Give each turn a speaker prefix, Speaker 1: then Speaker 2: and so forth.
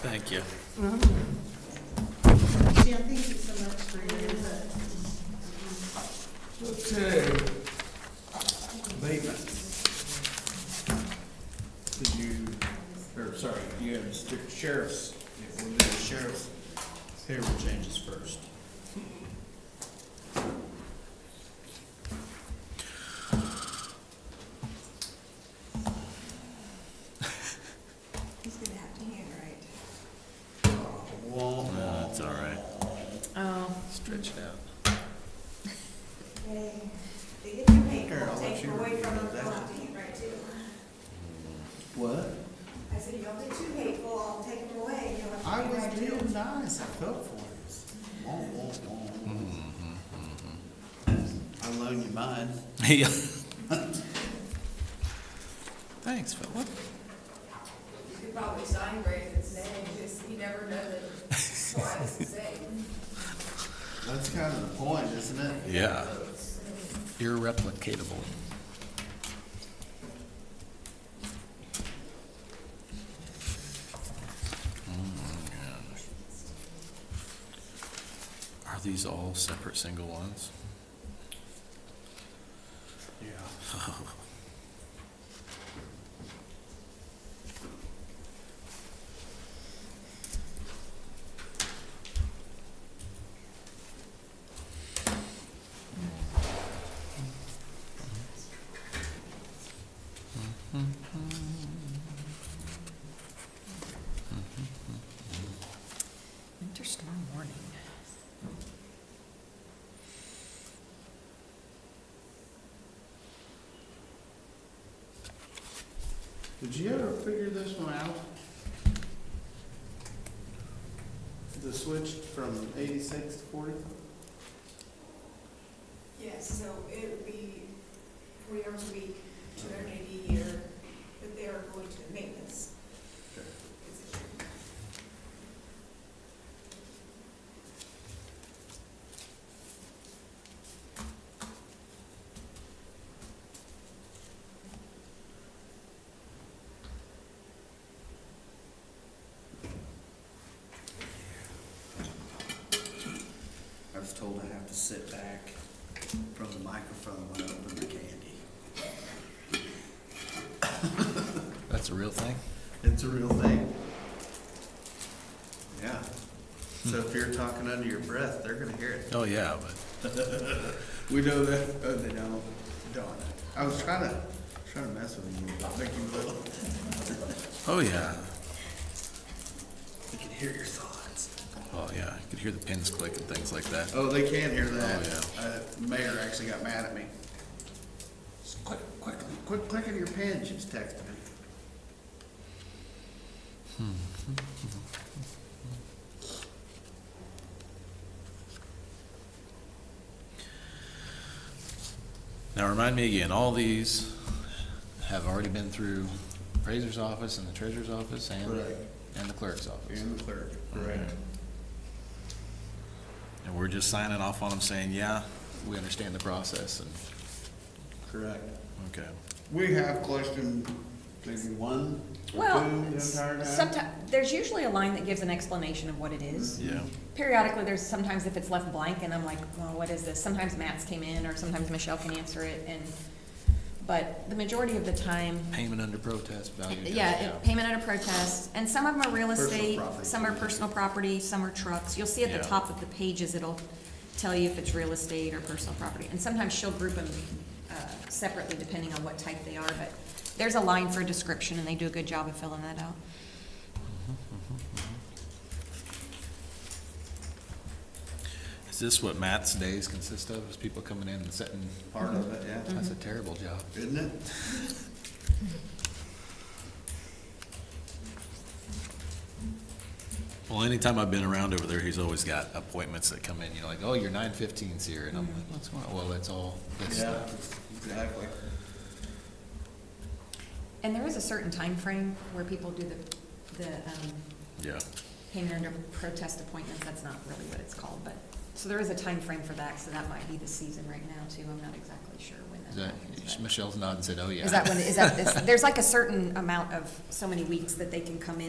Speaker 1: Thank you.
Speaker 2: See, I think it's some extra, but
Speaker 3: Okay. Abatement. Did you, or sorry, you had st- sheriff's, if we do the sheriff's payroll changes first.
Speaker 4: He's gonna have to handwrite.
Speaker 3: Uh,
Speaker 1: No, it's all right.
Speaker 5: Oh,
Speaker 1: Stretch it out.
Speaker 4: Yay. They get to make,
Speaker 3: Here, I'll
Speaker 4: we'll
Speaker 3: let
Speaker 4: take
Speaker 3: you
Speaker 4: away
Speaker 3: read
Speaker 4: from them,
Speaker 3: that.
Speaker 4: they'll have to handwrite too.
Speaker 3: What?
Speaker 4: I said, y'all be too hateful, I'll take them away, you'll have to
Speaker 3: I
Speaker 4: handwrite
Speaker 3: was
Speaker 4: too.
Speaker 3: real nice, I felt for you. Wah, wah, wah. I loan you mine.
Speaker 1: Yeah. Thanks, Philip.
Speaker 6: You could probably sign Brandon's name, just, you never know that twice the same.
Speaker 3: That's kind of the point, isn't it?
Speaker 1: Yeah. Irreplicatable. Mm, Are these all separate single ones?
Speaker 3: Yeah.
Speaker 5: winter storm warning.
Speaker 3: Did you ever figure this one out? The switch from eighty-six to forty?
Speaker 6: Yes, so it would be forty hours a week, two hundred and eighty a year, but they are going to maintenance position.
Speaker 3: I was told I have to sit back from the microphone when I open the candy.
Speaker 1: That's a real thing?
Speaker 3: It's a real thing. Yeah. So if you're talking under your breath, they're gonna hear it.
Speaker 1: Oh, yeah, but.
Speaker 3: We know that. Oh, they don't. Darn it. I was trying to, trying to mess with you, make you little.
Speaker 1: Oh, yeah.
Speaker 3: They can hear your thoughts.
Speaker 1: Oh, yeah. You could hear the pins click and things like that.
Speaker 3: Oh, they can hear that.
Speaker 1: Oh,
Speaker 3: Uh, mayor actually got mad at me. Just Quick, quick, quick, click on your pen, she was texting me.
Speaker 1: Now, remind me again, all these have already been through appraiser's office and the treasurer's office and,
Speaker 3: Right.
Speaker 1: and the clerk's office.
Speaker 3: And the clerk.
Speaker 1: Correct. And we're just signing off on them saying, yeah, we understand the process and,
Speaker 3: Correct.
Speaker 1: okay.
Speaker 3: We have question maybe one or two
Speaker 5: Well,
Speaker 3: the entire time.
Speaker 5: sometimes, there's usually a line that gives an explanation of what it is.
Speaker 1: Yeah,
Speaker 5: Periodically, there's sometimes if it's left blank and I'm like, well, what is this? Sometimes Matt's came in or sometimes Michelle can answer it and, but the majority of the time,
Speaker 1: payment under protest, value. adjusted,
Speaker 5: yeah, it- payment under protest. And some of them are real
Speaker 3: Personal
Speaker 5: estate,
Speaker 3: property.
Speaker 5: some are personal property, some are trucks. You'll see at
Speaker 1: Yeah.
Speaker 5: the top of the pages, it'll tell you if it's real estate or personal property. And sometimes she'll group them uh, separately depending on what type they are, but there's a line for a description and they do a good job of filling that out.
Speaker 1: Is this what Matt's days consist of, is people coming in and setting?
Speaker 3: Part of it, yeah.
Speaker 1: That's a
Speaker 5: Mm-hmm.
Speaker 1: terrible job.
Speaker 3: Isn't it?
Speaker 1: Well, anytime I've been around over there, he's always got appointments that come in, you know, like, oh, your nine fifteen's here, and I'm like,
Speaker 5: Mm-hmm.
Speaker 1: what's going on? Well, that's all this
Speaker 3: Yeah,
Speaker 1: stuff.
Speaker 3: exactly.
Speaker 5: And there is a certain time frame where people do the, the um,
Speaker 1: Yeah,
Speaker 5: payment under protest appointments. That's not really what it's called, but, so there is a time frame for that, so that might be the season right now too. I'm not exactly sure when
Speaker 1: Is
Speaker 5: that
Speaker 1: that-
Speaker 5: happens. but-
Speaker 1: Michelle's nodding, said, oh, yeah.
Speaker 5: Is that when, is that, this- there's like a certain amount of, so many weeks that they can come in